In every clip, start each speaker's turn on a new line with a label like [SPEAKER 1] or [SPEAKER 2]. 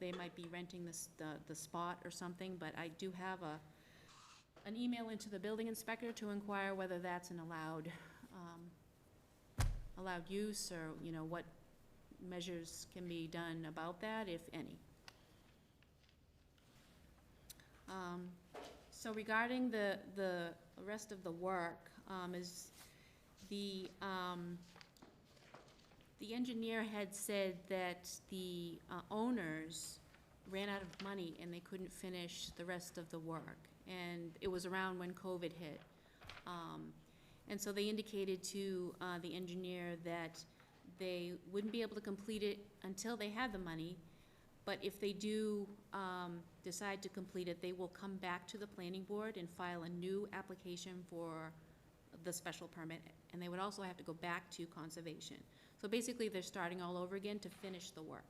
[SPEAKER 1] they might be renting this, the, the spot or something, but I do have a, an email into the building inspector to inquire whether that's an allowed, um, allowed use, or, you know, what measures can be done about that, if any. Um, So regarding the, the rest of the work, um, is the, um, the engineer had said that the uh, owners ran out of money and they couldn't finish the rest of the work. And it was around when COVID hit. Um, And so they indicated to uh, the engineer that they wouldn't be able to complete it until they had the money. But if they do um, decide to complete it, they will come back to the planning board and file a new application for the special permit. And they would also have to go back to conservation. So basically, they're starting all over again to finish the work.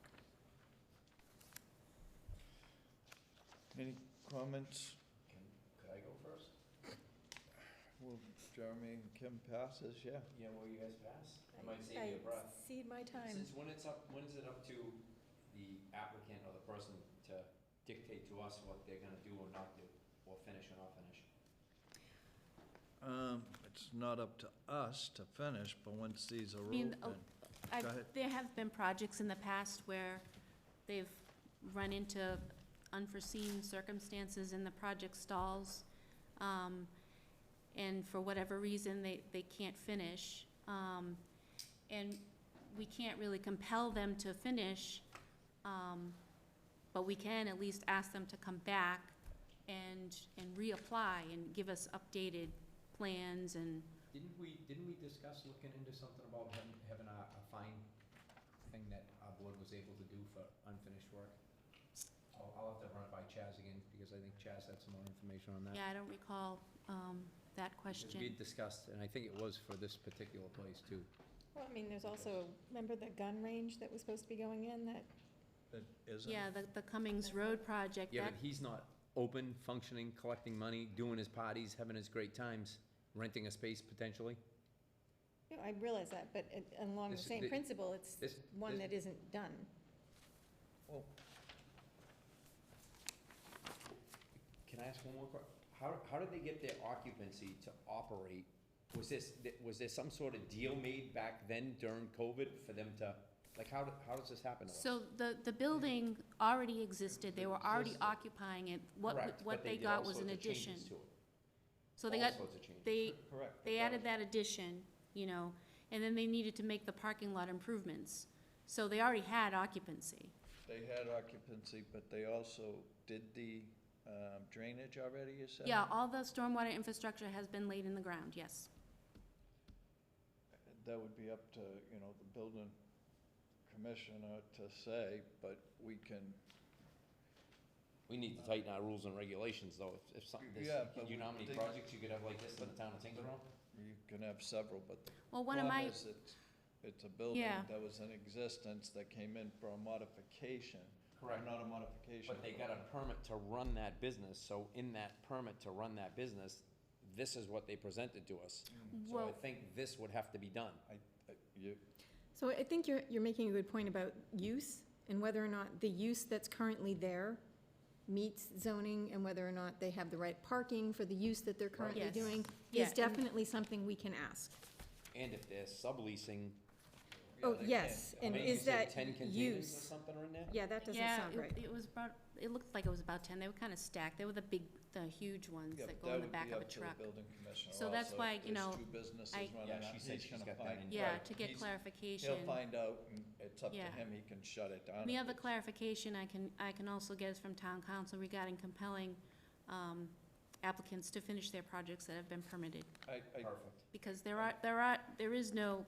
[SPEAKER 2] Any comments?
[SPEAKER 3] Can, could I go first?
[SPEAKER 2] Will Jeremy and Kim pass this? Yeah.
[SPEAKER 3] Yeah, well, you guys pass. I might
[SPEAKER 4] I
[SPEAKER 3] save you a breath.
[SPEAKER 4] Cede my time.
[SPEAKER 3] Since when it's up, when is it up to the applicant or the person to dictate to us what they're gonna do or not do, or finish or not finish?
[SPEAKER 2] Um, it's not up to us to finish, but once these are
[SPEAKER 1] I mean,
[SPEAKER 2] open.
[SPEAKER 1] oh, I've-
[SPEAKER 2] Go ahead.
[SPEAKER 1] There have been projects in the past where they've run into unforeseen circumstances and the project stalls. um, And for whatever reason, they, they can't finish. um, And we can't really compel them to finish, um, but we can at least ask them to come back and, and reapply and give us updated plans and,
[SPEAKER 3] Didn't we, didn't we discuss looking into something about having, having a, a fine thing that our board was able to do for unfinished work? I'll, I'll have to run it by Chaz again, because I think Chaz had some more information on that.
[SPEAKER 1] yeah, I don't recall um, that
[SPEAKER 3] Because
[SPEAKER 1] question.
[SPEAKER 3] We discussed, and I think it was for this particular place too.
[SPEAKER 4] Well, I mean, there's also, remember the gun range that was supposed to be going in that,
[SPEAKER 2] That isn't.
[SPEAKER 1] Yeah, the, the Cummings Road project,
[SPEAKER 3] Yeah,
[SPEAKER 1] that,
[SPEAKER 3] but he's not open, functioning, collecting money, doing his parties, having his great times, renting a space potentially.
[SPEAKER 4] no, I realize that, but it- along the
[SPEAKER 3] This-
[SPEAKER 4] same
[SPEAKER 3] thi-
[SPEAKER 4] principle, it's
[SPEAKER 3] This,
[SPEAKER 4] one
[SPEAKER 3] this-
[SPEAKER 4] that isn't done.
[SPEAKER 2] Well,
[SPEAKER 3] can I ask one more question? How, how did they get their occupancy to operate? Was this, th- was there some sort of deal made back then during COVID for them to, like, how, do- how does this happen to us?
[SPEAKER 1] so the, the building already existed, they were already
[SPEAKER 3] Existed.
[SPEAKER 1] occupying it, what, w-
[SPEAKER 3] Correct, but
[SPEAKER 1] what they
[SPEAKER 3] did
[SPEAKER 1] got
[SPEAKER 3] all
[SPEAKER 1] was an
[SPEAKER 3] sorts of changes
[SPEAKER 1] addition.
[SPEAKER 3] to it,
[SPEAKER 1] So they
[SPEAKER 3] all
[SPEAKER 1] got,
[SPEAKER 3] sorts of changes.
[SPEAKER 1] they,
[SPEAKER 2] correct.
[SPEAKER 1] they added that addition, you know, and then they needed to make the parking lot improvements. So they already had occupancy.
[SPEAKER 2] They had occupancy, but they also did the um, drainage already, you said?
[SPEAKER 1] Yeah, all the stormwater infrastructure has been laid in the ground, yes.
[SPEAKER 2] That would be up to, you know, the building commissioner to say, but we can,
[SPEAKER 3] We need to tighten our rules and regulations though, if, if something, this,
[SPEAKER 2] Yeah, but
[SPEAKER 3] you know how
[SPEAKER 2] we-
[SPEAKER 3] many
[SPEAKER 2] they-
[SPEAKER 3] projects you could have like this in the town of Tinkerton?
[SPEAKER 2] you can have several, but the
[SPEAKER 1] Well, one of
[SPEAKER 2] problem
[SPEAKER 1] my,
[SPEAKER 2] is it's, it's a building
[SPEAKER 1] Yeah.
[SPEAKER 2] that was in existence that came in for a modification. or Not a modification.
[SPEAKER 3] But they got a permit to run that business, so in that permit to run that business, this is what they presented to us. So I
[SPEAKER 1] well,
[SPEAKER 3] think this would have to be done.
[SPEAKER 2] Uh, You,
[SPEAKER 4] So I think you're, you're making a good point about use and whether or not the use that's currently there meets zoning and whether or not they have the right parking for the use that they're currently
[SPEAKER 1] Yes.
[SPEAKER 4] doing
[SPEAKER 1] Yeah,
[SPEAKER 4] is
[SPEAKER 1] and-
[SPEAKER 4] definitely something we can ask.
[SPEAKER 3] And if they're subleasing,
[SPEAKER 4] Oh,
[SPEAKER 2] they
[SPEAKER 4] yes,
[SPEAKER 2] can't-
[SPEAKER 4] and
[SPEAKER 3] maybe
[SPEAKER 4] is
[SPEAKER 3] you said
[SPEAKER 4] that
[SPEAKER 3] ten containers or
[SPEAKER 4] use?
[SPEAKER 3] something are in there?
[SPEAKER 4] Yeah, that doesn't
[SPEAKER 1] yeah,
[SPEAKER 4] sound right.
[SPEAKER 1] it, it was about, it looked like it was about ten, they were kinda stacked, they were the big, the huge ones
[SPEAKER 2] Yeah,
[SPEAKER 1] that
[SPEAKER 2] but
[SPEAKER 1] go in the
[SPEAKER 2] would
[SPEAKER 1] back
[SPEAKER 2] be
[SPEAKER 1] of a
[SPEAKER 2] up to the
[SPEAKER 1] truck.
[SPEAKER 2] building commissioner
[SPEAKER 1] So that's
[SPEAKER 2] also.
[SPEAKER 1] why,
[SPEAKER 2] If
[SPEAKER 1] you
[SPEAKER 2] there's
[SPEAKER 1] know,
[SPEAKER 2] two businesses
[SPEAKER 1] I-
[SPEAKER 2] running
[SPEAKER 3] Yeah,
[SPEAKER 2] out,
[SPEAKER 3] she
[SPEAKER 2] he's
[SPEAKER 3] said she's
[SPEAKER 2] gonna
[SPEAKER 3] got that
[SPEAKER 2] find-
[SPEAKER 3] in-
[SPEAKER 1] Yeah,
[SPEAKER 2] right,
[SPEAKER 1] to get
[SPEAKER 2] he's-
[SPEAKER 1] clarification.
[SPEAKER 2] He'll find out, and it's up to
[SPEAKER 1] Yeah.
[SPEAKER 2] him, he can shut it down.
[SPEAKER 1] The
[SPEAKER 2] if
[SPEAKER 1] other
[SPEAKER 2] it's-
[SPEAKER 1] clarification I can, I can also get is from town council regarding compelling um, applicants to finish their projects that have been permitted,
[SPEAKER 2] I, I,
[SPEAKER 3] Perfect.
[SPEAKER 1] because there are, there are, there is no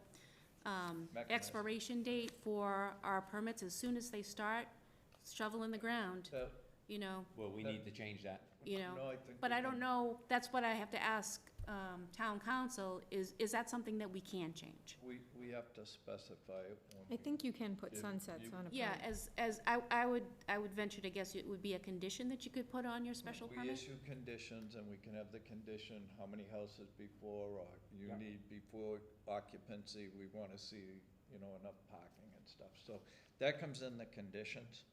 [SPEAKER 1] um,
[SPEAKER 2] Mechanism.
[SPEAKER 1] expiration date for our permits. As soon as they start shoveling the ground,
[SPEAKER 2] that-
[SPEAKER 1] you know,
[SPEAKER 3] Well, we need to change that.
[SPEAKER 1] you know.
[SPEAKER 2] no, I think.
[SPEAKER 1] But
[SPEAKER 2] we
[SPEAKER 1] I don't
[SPEAKER 2] can-
[SPEAKER 1] know, that's what I have to ask um, town council, is, is that something that we can change?
[SPEAKER 2] We, we have to specify it when
[SPEAKER 4] I
[SPEAKER 2] we.
[SPEAKER 4] think you can put
[SPEAKER 2] You-
[SPEAKER 4] sunsets
[SPEAKER 2] you-
[SPEAKER 4] on a permit.
[SPEAKER 1] Yeah, as, as, I, I would, I would venture to guess it would be a condition that you could put on your special
[SPEAKER 2] We
[SPEAKER 1] permit?
[SPEAKER 2] issue conditions, and we can have the condition, how many houses before, or you
[SPEAKER 3] Yeah.
[SPEAKER 2] need before occupancy, we wanna see, you know, enough parking and stuff, so that comes in the conditions.